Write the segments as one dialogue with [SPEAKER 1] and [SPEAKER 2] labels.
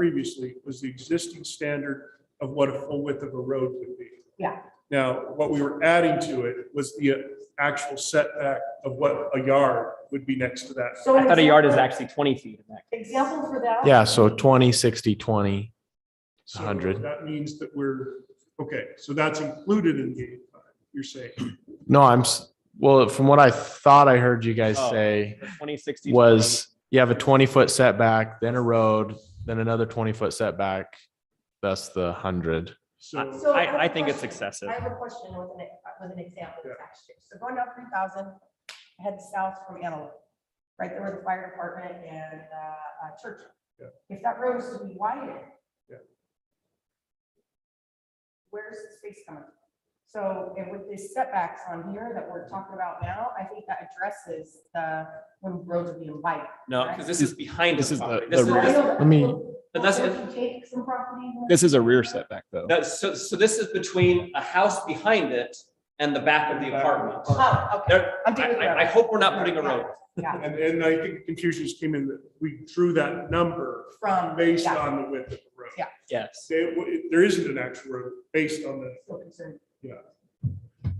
[SPEAKER 1] previously was the existing standard of what a full width of a road would be.
[SPEAKER 2] Yeah.
[SPEAKER 1] Now, what we were adding to it was the uh, actual setback of what a yard would be next to that.
[SPEAKER 2] So
[SPEAKER 3] I
[SPEAKER 2] an
[SPEAKER 3] thought a yard is
[SPEAKER 2] example-
[SPEAKER 3] actually twenty feet in that.
[SPEAKER 2] Example for that.
[SPEAKER 4] Yeah, so 20, 60, 20.
[SPEAKER 1] So
[SPEAKER 4] 100.
[SPEAKER 1] That means that we're, okay, so that's included in the eighty-five, you're saying.
[SPEAKER 4] No, I'm, s- well, from what I thought I heard you guys
[SPEAKER 3] Oh.
[SPEAKER 4] say
[SPEAKER 3] Twenty, sixty. 20.
[SPEAKER 4] was you have a 20 foot setback, then a road, then another 20 foot setback. That's the 100.
[SPEAKER 1] So,
[SPEAKER 2] So have a
[SPEAKER 3] I, I think it's
[SPEAKER 2] question.
[SPEAKER 3] excessive.
[SPEAKER 2] I have a question with an, with an example
[SPEAKER 1] Yeah.
[SPEAKER 2] of tax year. So going down three thousand, head south from Antelope, right there where the fire department and, uh, uh, church.
[SPEAKER 1] Yeah.
[SPEAKER 2] If that road is to be widened.
[SPEAKER 1] Yeah.
[SPEAKER 2] Where's the space coming? from? So, and with these setbacks on here that we're talking about now, I think that addresses the, when roads are being widened.
[SPEAKER 3] No, because this is behind.
[SPEAKER 5] This is the-
[SPEAKER 3] property.
[SPEAKER 5] the
[SPEAKER 3] This is,
[SPEAKER 5] rear.
[SPEAKER 3] this-
[SPEAKER 4] Let me-
[SPEAKER 3] But that's-
[SPEAKER 2] Take some property.
[SPEAKER 5] This is a rear setback, though.
[SPEAKER 3] that's, so, so this is between a house behind it and the back of the apartment.
[SPEAKER 2] Oh, okay.
[SPEAKER 3] There, I,
[SPEAKER 2] I'm doing
[SPEAKER 3] I- I
[SPEAKER 2] that.
[SPEAKER 3] hope we're not putting a road.
[SPEAKER 2] Yeah,
[SPEAKER 1] and, and I think confusions came in that we drew that number
[SPEAKER 2] from.
[SPEAKER 1] based
[SPEAKER 2] yeah.
[SPEAKER 1] on the width of the road.
[SPEAKER 2] Yeah.
[SPEAKER 3] Yes.
[SPEAKER 1] They- w- There isn't an actual road based on the
[SPEAKER 2] Still concerned.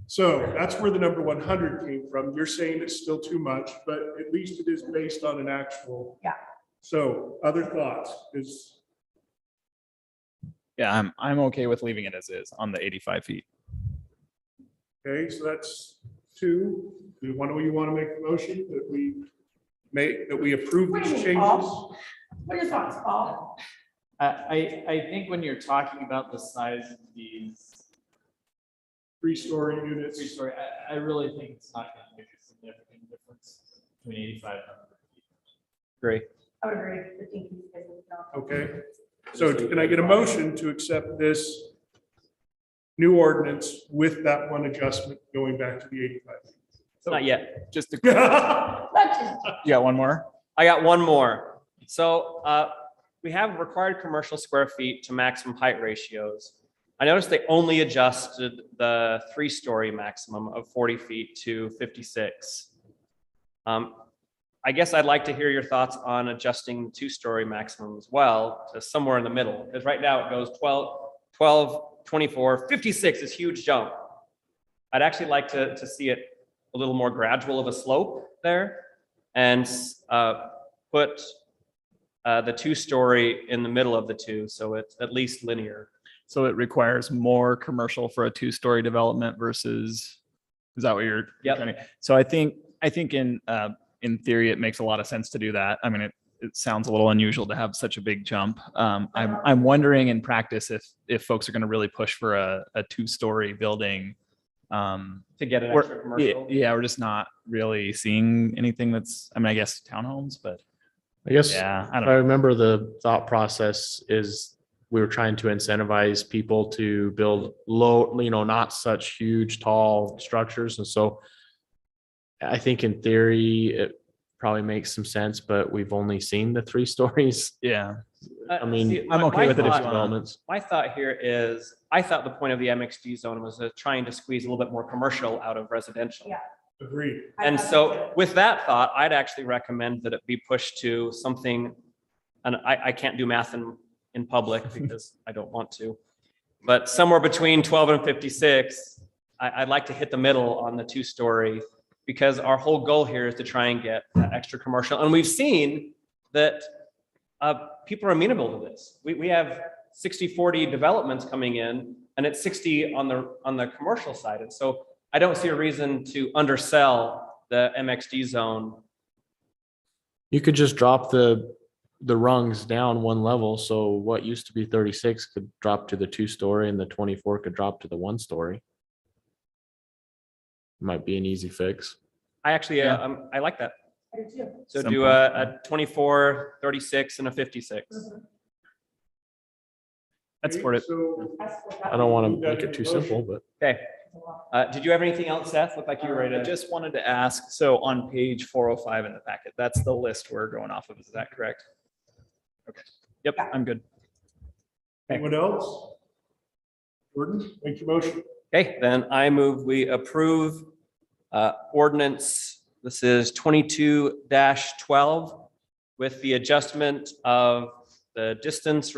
[SPEAKER 1] So that's where the number one hundred came from. You're saying it's still too much, but at least it is based on an actual.
[SPEAKER 2] Yeah.
[SPEAKER 1] So other thoughts is,
[SPEAKER 5] Yeah, I'm, I'm okay with leaving it as is on the eighty-five feet.
[SPEAKER 1] okay, so that's two. Do you want, to? you want to make a motion that we make, that we approve
[SPEAKER 2] What do
[SPEAKER 1] these
[SPEAKER 2] you think,
[SPEAKER 1] changes?
[SPEAKER 2] Paul? What are your thoughts, Paul?
[SPEAKER 6] I, I, I think when you're talking about the size of these
[SPEAKER 1] Three-story
[SPEAKER 6] three
[SPEAKER 1] units.
[SPEAKER 6] story, I, I really think it's not gonna make a significant difference between eighty-five and
[SPEAKER 3] Great.
[SPEAKER 2] I would agree. I think he's good with that.
[SPEAKER 1] Okay, so can I get a motion to accept this new ordinance with that one adjustment going back to the eighty-five?
[SPEAKER 3] Not yet.
[SPEAKER 5] Just, to-
[SPEAKER 2] Let's just-
[SPEAKER 5] you got one more?
[SPEAKER 3] I got one more. So, uh, we have required commercial square feet to maximum height ratios. I noticed they only adjusted the three-story maximum of forty feet to fifty-six. Um, I guess I'd like to hear your thoughts on adjusting the two-story maximum as well to somewhere in the middle, because right now it goes 12, 12, 24, 56 is huge jump. I'd actually like to, to see it a little more gradual of a slope there and uh, put uh, the two-story in the middle of the two, so it's at least linear.
[SPEAKER 5] So it requires more commercial for a two-story development versus, is that what you're?
[SPEAKER 3] Yep.
[SPEAKER 5] trying to- So I think, I think in, uh, in theory, it makes a lot of sense to do that. I mean, it, it sounds a little unusual to have such a big jump. Um, I'm, I'm wondering in practice if, if folks are going to really push for a, a two-story building. Um,
[SPEAKER 3] To get an
[SPEAKER 5] We're-
[SPEAKER 3] extra
[SPEAKER 5] Yeah,
[SPEAKER 3] commercial.
[SPEAKER 5] yeah, we're just not really seeing anything that's, I mean, I guess townhomes, but
[SPEAKER 4] I guess
[SPEAKER 5] yeah, I
[SPEAKER 4] if
[SPEAKER 5] don't
[SPEAKER 4] I
[SPEAKER 5] know.
[SPEAKER 4] remember the thought process is we were trying to incentivize people to build low, you know, not such huge, tall structures. And so I think in theory, it probably makes some sense, but we've only seen the three stories.
[SPEAKER 5] Yeah,
[SPEAKER 3] Uh,
[SPEAKER 4] I mean,
[SPEAKER 3] see,
[SPEAKER 5] I'm
[SPEAKER 3] my-
[SPEAKER 5] okay
[SPEAKER 3] my
[SPEAKER 5] with it if you
[SPEAKER 3] thought-
[SPEAKER 5] wanna-
[SPEAKER 4] Developments.
[SPEAKER 3] My thought here is, I thought the point of the MXD zone was uh, trying to squeeze a little bit more commercial out of residential.
[SPEAKER 2] Yeah.
[SPEAKER 1] Agreed.
[SPEAKER 2] I
[SPEAKER 3] And
[SPEAKER 2] thought
[SPEAKER 3] so with that thought, I'd actually recommend that it be pushed to something, and I, I can't do math in, in public because I don't want to. But somewhere between twelve and fifty-six, I, I'd like to hit the middle on the two-story because our whole goal here is to try and get that extra commercial. And we've seen that uh, people are amenable to this. We, we have 60, 40 developments coming in and it's 60 on the, on the commercial side. And so I don't see a reason to undersell the MXD zone.
[SPEAKER 4] You could just drop the, the rungs down one level. So what used to be thirty-six could drop to the two-story and the twenty-four could drop to the one-story. Might be an easy fix.
[SPEAKER 3] I actually,
[SPEAKER 5] Yeah.
[SPEAKER 3] uh, um, I like that.
[SPEAKER 2] I did too.
[SPEAKER 3] So do
[SPEAKER 5] Simple.
[SPEAKER 3] a, a 24, 36 and a 56.
[SPEAKER 5] I'd support it.
[SPEAKER 1] So
[SPEAKER 2] That's what that
[SPEAKER 4] I don't want
[SPEAKER 1] Leave
[SPEAKER 4] to
[SPEAKER 1] that
[SPEAKER 4] make
[SPEAKER 1] in
[SPEAKER 4] it too
[SPEAKER 1] motion.
[SPEAKER 4] simple, but.
[SPEAKER 2] was about.
[SPEAKER 3] Uh, did you have anything else, Seth? Looked like you were ready
[SPEAKER 5] I
[SPEAKER 3] to.
[SPEAKER 5] Uh, just wanted to ask, so on page four oh five in the packet, that's the list we're going off of, is that correct? Okay, yep, I'm good.
[SPEAKER 1] anyone else? Jordan, make your motion.
[SPEAKER 3] Okay, then I move we approve uh, ordinance, this is twenty-two twelve with the adjustment of the distance